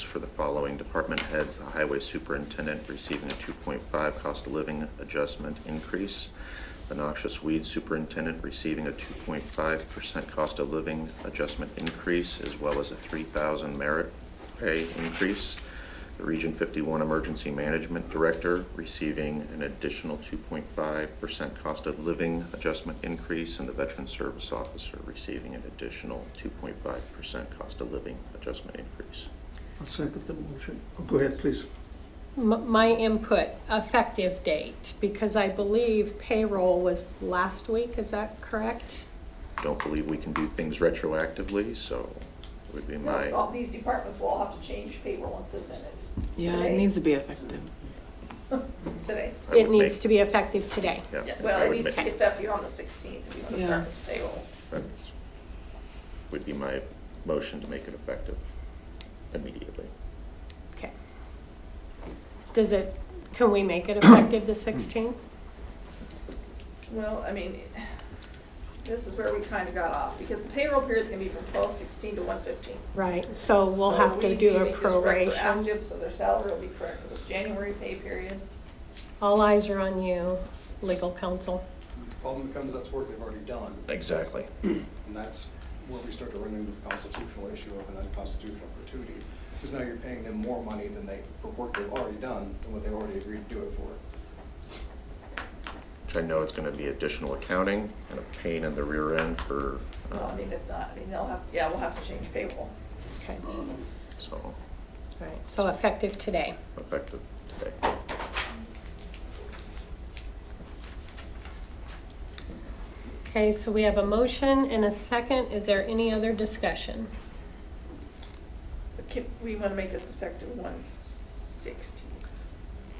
for the following department heads. The highway superintendent receiving a 2.5 cost of living adjustment increase. The noxious weed superintendent receiving a 2.5% cost of living adjustment increase, as well as a 3,000 merit pay increase. The Region 51 Emergency Management Director receiving an additional 2.5% cost of living adjustment increase, and the Veteran Service Officer receiving an additional 2.5% cost of living adjustment increase. I'll second the motion. Oh, Go ahead, please. M- My input, effective date, because I believe payroll was last week, is that correct? Don't believe we can do things retroactively, so would be my, All these departments will all have to change payroll and submit it Yeah, it needs to be effective. today. I It would make- needs to be effective today. yeah, Well, I at would least make- effective on the sixteenth, if you want to Yeah. start with payroll. that's- Would be my motion to make it effective immediately. Okay. Does it, can we make it effective the 16th? Well, I mean, this is where we kind of got off, because the payroll period's gonna be from twelve sixteen to one fifteen. Right, so we'll have to do a proration. So their salary will be correct for this January pay period. All eyes are on you, legal counsel. Problem becomes that's work they've already done, Exactly. and that's where we start to run into the constitutional issue of an unconstitutional gratuity. Because now you're paying them more money than they, for work they've already done, than what they already agreed to do it for. which I know it's gonna be additional accounting and a pain in the rear end for, Well, I um, mean, it's not, I mean, they'll have, yeah, we'll have to change payroll. Okay, all uh, so, right, so effective today. effective today. Okay, so we have a motion and a second. Is there any other discussion? But can, we want to make this effective one sixteen.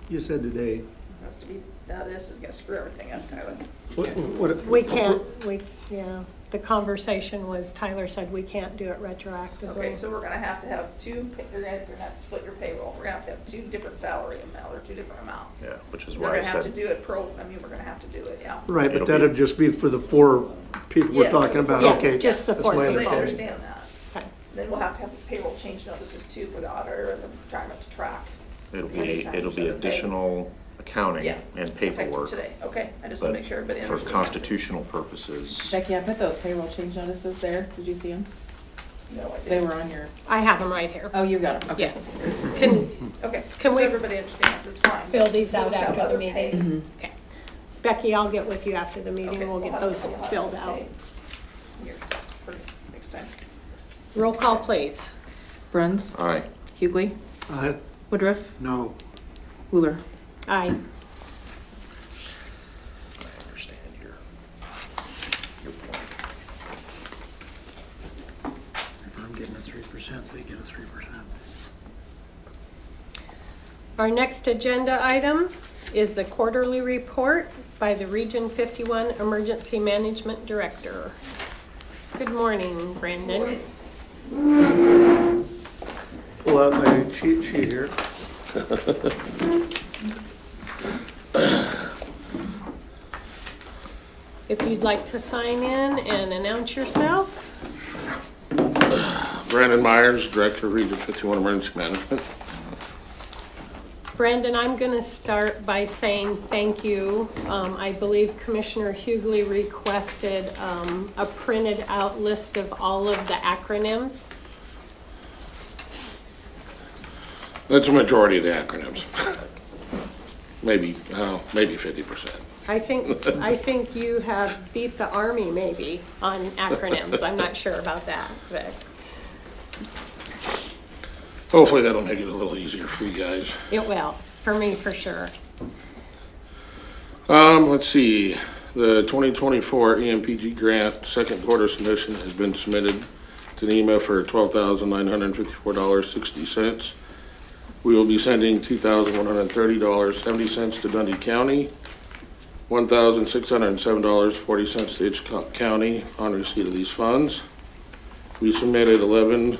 You said today. Has to be, now this is gonna screw everything up, Tyler. What- what- We can't, we, yeah, the conversation was Tyler said we can't do it Okay, retroactively. so we're gonna have to have two, pa- you're gonna have to split your payroll, we're gonna have to have two different salary amounts, or two different amounts. Yeah, which is We're why I gonna have to said, do it pro, I mean, we're gonna have to do it, yeah. Right, It'll be- but that'd just be for the four people we're Yes. talking about, Yes, okay? just the that's four my So people. they understanding. understand that. Okay. Then we'll have to have the payroll change notices too for the auditor and the retirement to track. it'll Yeah, be, exactly. it'll be Okay. additional accounting Yeah. and effective paperwork. Today, okay, I just wanna but make sure everybody For understands. constitutional purposes, Becky, I put those payroll change notices there. Did you see them? No, I They didn't, were on your, I have them right here. oh, you got them, okay. Yes. Can okay, Can so we- everybody understands, it's fine. fill these We'll out just have after the other pay. meeting? Okay. Becky, I'll get with you after the Okay, meeting. We'll get have- those we'll have filled other out. pay. Here's, for next time. Roll call, please. Bruns, aye, Hughley, Uh, Woodruff, no, Wheeler. Aye. I understand your, your point. If I'm getting a three percent, they get a three percent. Our next agenda item is the quarterly report by the Region 51 Emergency Management Director. Good morning, Brandon. pull out my cheat sheet here. If you'd like to sign in and announce yourself. Brandon Myers, Director of Region 51 Emergency Management. Brandon, I'm going to start by saying thank you. Um, I believe Commissioner Hughley requested um, a printed out list of all of the acronyms. That's a majority of the acronyms. Maybe, oh, maybe 50%. I think, I think you have beat the Army maybe on acronyms. I'm not sure about that, but Hopefully that'll make it a little easier for you guys. it will, for me, for sure. Um, let's see, the E 2024 EMPG grant, second quarter submission has been submitted to NEMA for $12,954.60. We will be sending $2,130.70 to Dundee County, $1,607.40 to Hitchcock County on receipt of these funds. We submitted 11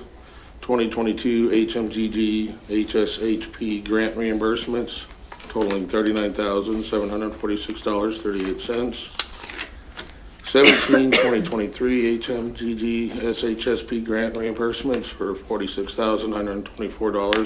2022 HMGG HSHP grant reimbursements totaling $39,746.38. 17 2023 HMGG SHSP grant reimbursements for $46,924.